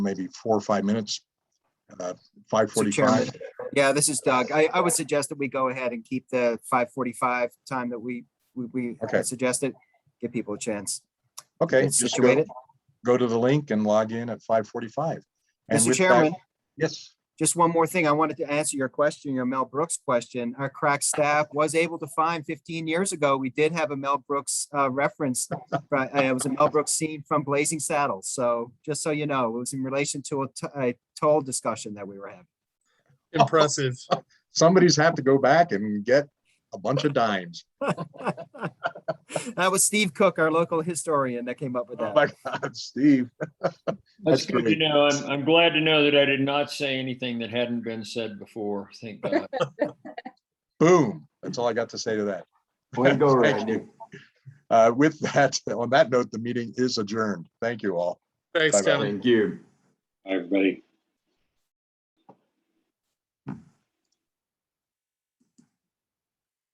maybe four or five minutes. Uh, Mr. 5:45. Chairman. Yeah, this is Doug. I, I would suggest that we go ahead and keep the five forty-five time that we, we, we had Okay. suggested. Give people a chance. Okay, Get just go, situated. go to the link and log in at five forty-five. And Mr. with that- Chairman, Yes, just one more thing. I wanted to answer your question, your Mel Brooks question. Our crack staff was able to find fifteen years ago, we did have a Mel Brooks, uh, reference. But uh, it was a Mel Brooks scene from Blazing Saddles. So just so you know, it was in relation to a t- a toll discussion that we were having. Impressive. somebody's have to go back and get a bunch of dimes. That was Steve Cook, our local historian that came up with Oh that. my God, Steve. That's That's good to great. know. I'm, I'm glad to know that I did not say anything that hadn't been said before. Thank God. Boom. That's all I got to say to that. Way to go, Thank Randy. Uh, with that, on that note, the meeting is adjourned. Thank you all. Thanks, Bye-bye. Kevin. Thank you. Everybody.